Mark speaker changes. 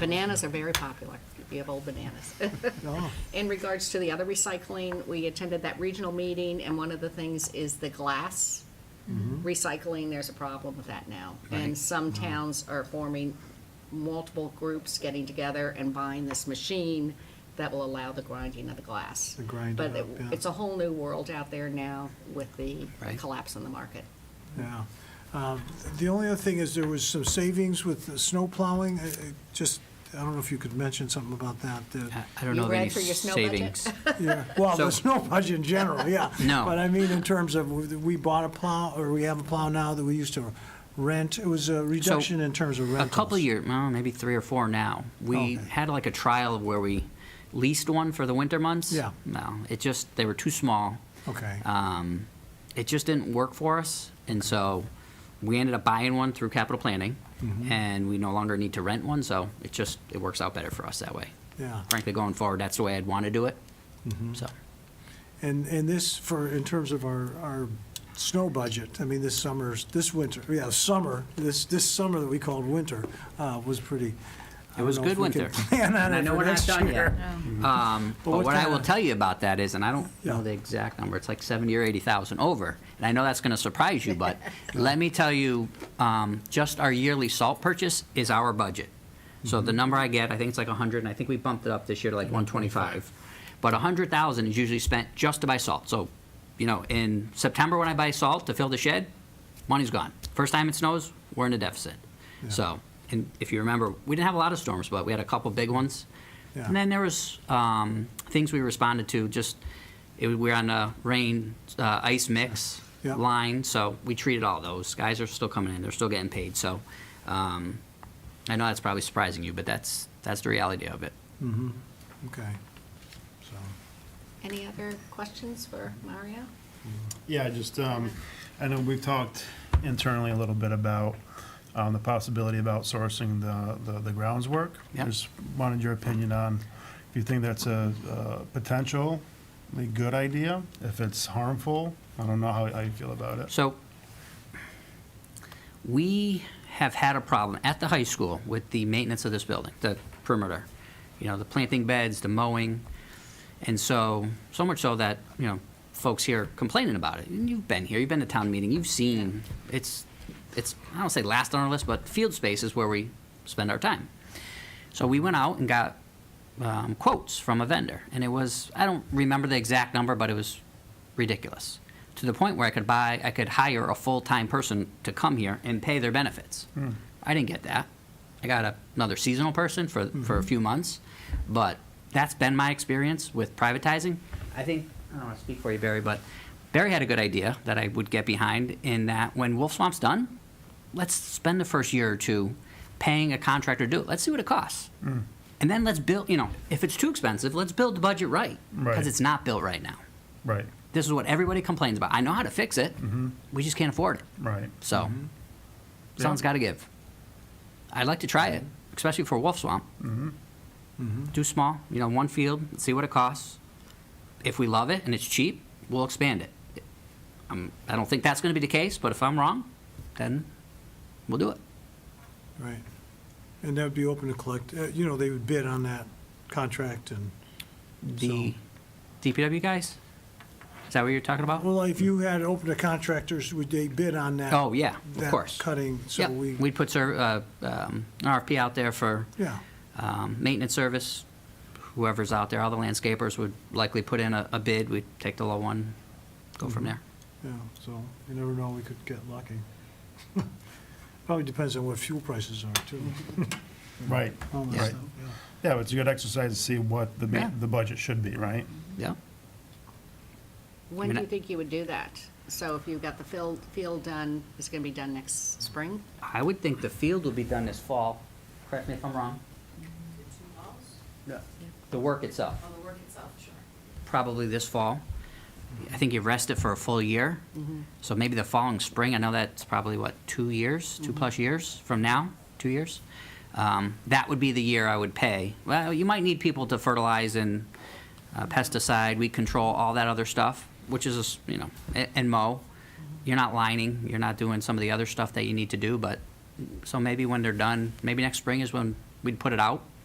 Speaker 1: Bananas are very popular. You have old bananas. In regards to the other recycling, we attended that regional meeting, and one of the things is the glass
Speaker 2: Mm-hmm.
Speaker 1: recycling. There's a problem with that now. And
Speaker 3: Right.
Speaker 1: some towns are forming multiple groups, getting together and buying this machine that will allow the grinding of the glass.
Speaker 2: The grind
Speaker 1: But
Speaker 2: it
Speaker 1: it-
Speaker 2: up, yeah.
Speaker 1: it's a whole new world out there now with the
Speaker 3: Right.
Speaker 1: collapse in the market.
Speaker 2: Yeah. Um, The only other thing is there was some savings with the snow plowing. I- I Just, I don't know if you could mention something about that.
Speaker 3: I
Speaker 2: that-
Speaker 3: I don't
Speaker 1: You
Speaker 3: know of
Speaker 1: read
Speaker 3: any
Speaker 1: for your snow budget?
Speaker 3: savings.
Speaker 2: yeah. Well,
Speaker 3: So-
Speaker 2: the snow budget in general, yeah.
Speaker 3: No.
Speaker 2: But I mean, in terms of, we- we bought a plow, or we have a plow now that we used to rent. It was a reduction in terms of
Speaker 3: A
Speaker 2: rentals.
Speaker 3: couple of years, well, maybe three or four now. We
Speaker 2: Oh, Okay.
Speaker 3: had like a trial where we leased one for the winter months.
Speaker 2: Yeah.
Speaker 3: No, it just, they were too small.
Speaker 2: Okay.
Speaker 3: Um, It just didn't work for us, and so we ended up buying one through capital planning,
Speaker 2: Mm-hmm.
Speaker 3: and we no longer need to rent one, so it just, it works out better for us that way.
Speaker 2: Yeah.
Speaker 3: Frankly, going forward, that's the way I'd want to do it,
Speaker 2: Mm-hmm.
Speaker 3: so.
Speaker 2: And, and this for, in terms of our, our snow budget, I mean, this summer's, this winter, yeah, summer, this, this summer that we called winter, uh, was pretty. I
Speaker 3: It
Speaker 2: don't
Speaker 3: was
Speaker 2: know if
Speaker 3: good
Speaker 2: we can
Speaker 3: winter.
Speaker 2: Plan on
Speaker 3: And I
Speaker 2: it
Speaker 3: know
Speaker 2: for
Speaker 3: we're not
Speaker 2: next
Speaker 3: done yet.
Speaker 2: year.
Speaker 3: Um,
Speaker 2: But
Speaker 3: But
Speaker 2: what
Speaker 3: what I will
Speaker 2: kinda-
Speaker 3: tell you about that is, and I don't know
Speaker 2: Yeah.
Speaker 3: the exact number, it's like 70 or 80,000 over. And I know that's going to surprise you, but let me tell you, um, just our yearly salt purchase is our budget. So the number I get, I think it's like 100, and I think we bumped it up this year to like 125. But 100,000 is usually spent just to buy salt. So, you know, in September when I buy salt to fill the shed, money's gone. First time it snows, we're in a deficit. So, and if you remember, we didn't have a lot of storms, but we had a couple big ones.
Speaker 2: Yeah.
Speaker 3: And then there was um, things we responded to, just, it, we were on a rain, uh, ice mix
Speaker 2: Yeah.
Speaker 3: line, so we treated all those. Guys are still coming in, they're still getting paid, so, um, I know that's probably surprising you, but that's, that's the reality of it.
Speaker 2: Okay, so,
Speaker 1: Any other questions for Mario?
Speaker 4: Yeah, just, um, I know we've talked internally a little bit about, um, the possibility of outsourcing the, the, the grounds work.
Speaker 3: Yeah.
Speaker 4: Just wanted your opinion on, if you think that's a, uh, potentially good idea, if it's harmful, I don't know how, how you feel about it.
Speaker 3: So, we have had a problem at the high school with the maintenance of this building, the perimeter. You know, the planting beds, the mowing, and so, so much so that, you know, folks here complaining about it. And you've been here, you've been to town meeting, you've seen, it's, it's, I don't say last on our list, but field space is where we spend our time. So we went out and got um, quotes from a vendor, and it was, I don't remember the exact number, but it was ridiculous. To the point where I could buy, I could hire a full-time person to come here and pay their benefits. I didn't get that. I got a- another seasonal person for, for a few months, but that's been my experience with privatizing. I think, I don't want to speak for you, Barry, but Barry had a good idea that I would get behind in that when Wolf Swamp's done, let's spend the first year or two paying a contractor to do it. Let's see what it costs. And then let's build, you know, if it's too expensive, let's build the budget right.
Speaker 4: Right.
Speaker 3: Because it's not built right now.
Speaker 4: Right,
Speaker 3: This is what everybody complains about. I know how to fix it.
Speaker 2: Mm-hmm.
Speaker 3: We just can't afford it.
Speaker 4: right.
Speaker 3: So, someone's
Speaker 4: Yeah.
Speaker 3: got to give. I'd like to try it, especially for Wolf Swamp.
Speaker 2: Mm-hmm.
Speaker 3: Do small, you know, one field, see what it costs. If we love it and it's cheap, we'll expand it. Um, I don't think that's going to be the case, but if I'm wrong, then we'll do it.
Speaker 2: right. And that would be open to collect, uh, you know, they would bid on that contract and,
Speaker 3: The
Speaker 2: So-
Speaker 3: DPW guys? Is that what you're talking about?
Speaker 2: well, if you had open to contractors, would they bid on that?
Speaker 3: Oh, yeah, of
Speaker 2: that
Speaker 3: course.
Speaker 2: Cutting, so
Speaker 3: Yeah,
Speaker 2: we,
Speaker 3: we'd put ser- uh, um, an RFP out there for
Speaker 2: yeah,
Speaker 3: um, maintenance service. Whoever's out there, all the landscapers would likely put in a a bid. We'd take the low one, go from there.
Speaker 2: yeah, so you never know, we could get lucky. Probably depends on what fuel prices are too.
Speaker 4: Right,
Speaker 2: all that
Speaker 4: right.
Speaker 2: stuff, yeah.
Speaker 4: Yeah, but it's a good exercise to see what the,
Speaker 3: Yeah.
Speaker 4: ma- the budget should be, right?
Speaker 3: Yeah.
Speaker 1: When
Speaker 3: mean,
Speaker 1: do
Speaker 3: I-
Speaker 1: you think you would do that? So if you've got the field, field done, it's gonna be done next spring?
Speaker 3: I would think the field will be done this fall. Correct me if I'm wrong. The work itself,
Speaker 5: on Oh, the work itself, sure.
Speaker 3: probably this fall. I think you rest it for a full year. So maybe the following spring, I know that's probably what, two years, two-plus years from now, two years? Um, That would be the year I would pay. Well, you might need people to fertilize and uh, pesticide, weed control, all that other stuff, which is, a s- you know, a- and mow. You're not lining, you're not doing some of the other stuff that you need to do, but, so maybe when they're done, maybe next spring is when we'd put it out,